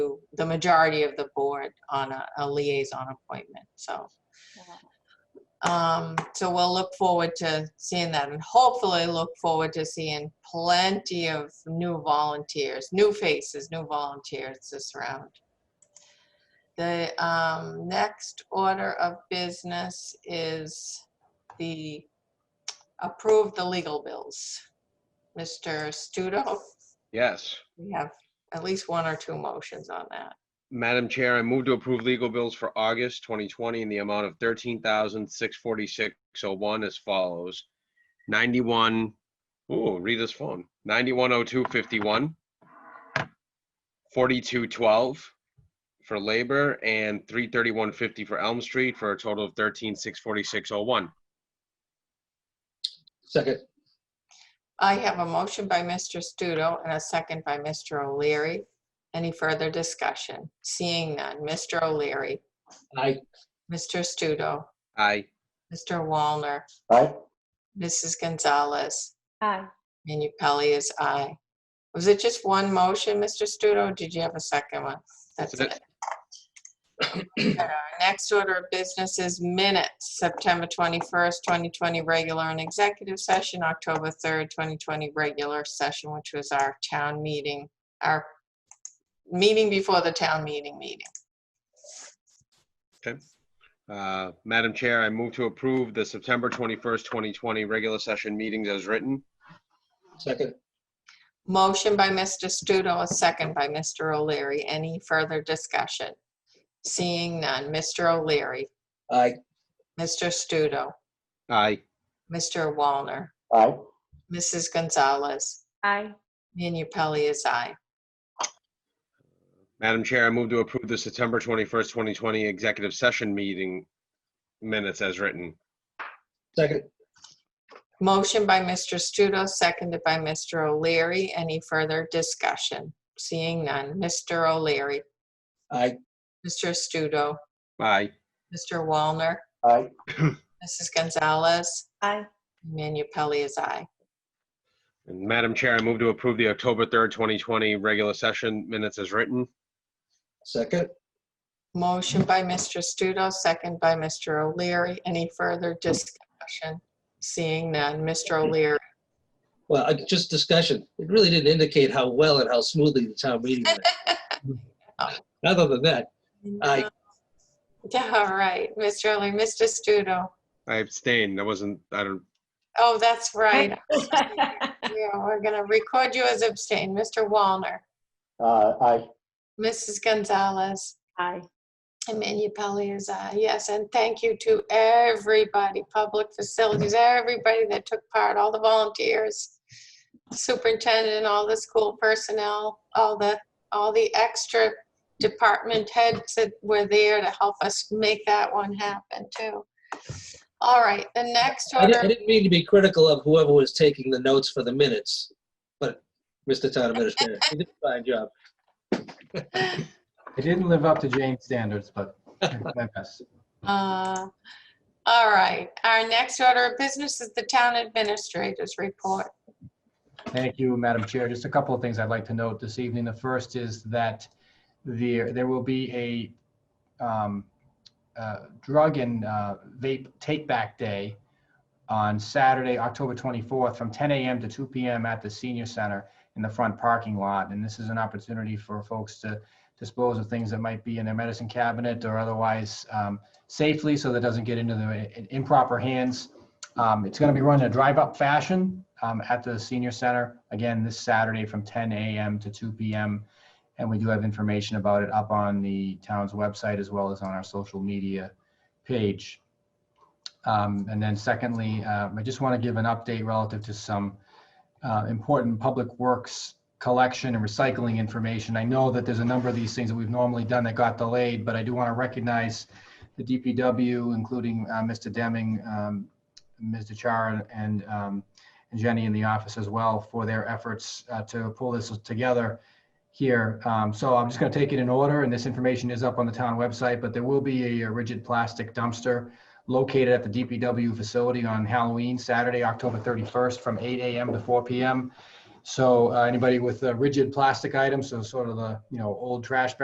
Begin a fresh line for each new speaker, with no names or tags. the majority of the board on a, a liaison appointment, so. Um, so we'll look forward to seeing that and hopefully look forward to seeing plenty of new volunteers, new faces, new volunteers this round. The, um, next order of business is the, approve the legal bills. Mr. Studo,
Yes.
we have at least one or two motions on that.
Madam Chair, I move to approve legal bills for August 2020 in the amount of 13646 oh as follows. 91, ooh, read this phone, 910251, 4212 for labor, and 33150 for Elm Street, for a total of 1364601.
Second,
I have a motion by Mr. Studo and a second by Mr. O'Leary. Any further discussion? Seeing none. Mr. O'Leary,
aye.
Mr. Studo,
Aye.
Mr. Walner,
Aye.
Mrs. Gonzalez,
Aye.
and you, Pelley is aye. Was it just one motion, Mr. Studo? or Did you have a second one? That's
That's
it. Okay, Our next order of business is minutes, September 21st, 2020, regular and executive session, October 3rd, 2020, regular session, which was our town meeting, our meeting before the town meeting meeting.
Uh, Madam Chair, I move to approve the September 21st, 2020 regular session meetings as written.
Second,
Motion by Mr. Studo, a second by Mr. O'Leary. Any further discussion? Seeing none. Mr. O'Leary,
aye.
Mr. Studo,
Aye.
Mr. Walner,
Aye.
Mrs. Gonzalez,
Aye.
Manu Pelley is aye.
Madam Chair, I move to approve the September 21st, 2020 executive session meeting minutes as written.
Second,
Motion by Mr. Studo, seconded by Mr. O'Leary. Any further discussion? Seeing none. Mr. O'Leary,
aye.
Mr. Studo,
Aye.
Mr. Walner,
Aye.
Mrs. Gonzalez,
Aye.
Manu Pelley is aye.
And Madam Chair, I move to approve the October 3rd, 2020 regular session minutes as written.
Second,
Motion by Mr. Studo, second by Mr. O'Leary. Any further discussion? Seeing none. Mr. O'Leary,
well, I- just discussion. It really didn't indicate how well and how smoothly the town meeting went. Other than that, aye.
Yeah, all right. Mr. O'Leary, Mr. Studo.
I abstain. I wasn't, I don't,
Oh, that's right. Yeah, we're gonna record you as abstain. Mr. Walner,
Uh, Aye.
Mrs. Gonzalez,
Aye.
and Manu Pelley is aye. Yes, and thank you to everybody, public facilities, everybody that took part, all the volunteers, superintendent, all the school personnel, all the, all the extra department heads that were there to help us make that one happen too. All right, the next
I di-
order.
I didn't mean to be critical of whoever was taking the notes for the minutes, but Mr. Town Administrator, you did a fine job.
I didn't live up to Jane's standards, but I did my best.
Uh, All right, our next order of business is the town administrator's report.
Thank you, Madam Chair. Just a couple of things I'd like to note this evening. The first is that there, there will be a um, uh, drug and uh, vape take-back day on Saturday, October 24th, from 10 a.m. to 2 p.m. at the senior center in the front parking lot. And this is an opportunity for folks to dispose of things that might be in their medicine cabinet or otherwise um, safely, so that it doesn't get into the uh, improper hands. Um, it's going to be run in a drive-up fashion um, at the senior center again this Saturday from 10 a.m. to 2 p.m. And we do have information about it up on the town's website as well as on our social media page. Um, and then, secondly, uh, I just want to give an update relative to some uh, important public works collection and recycling information. I know that there's a number of these things that we've normally done that got delayed, but I do want to recognize the DPW, including uh, Mr. Deming, um, Ms. DeChara and um, and Jenny in the office as well for their efforts uh, to pull this together here. Um, So I'm just going to take it in order, and this information is up on the town website, but there will be a rigid plastic dumpster located at the DPW facility on Halloween, Saturday, October 31st, from 8 AM to 4 PM. So uh, anybody with uh, rigid plastic items, so sort of the, you know, old trash bags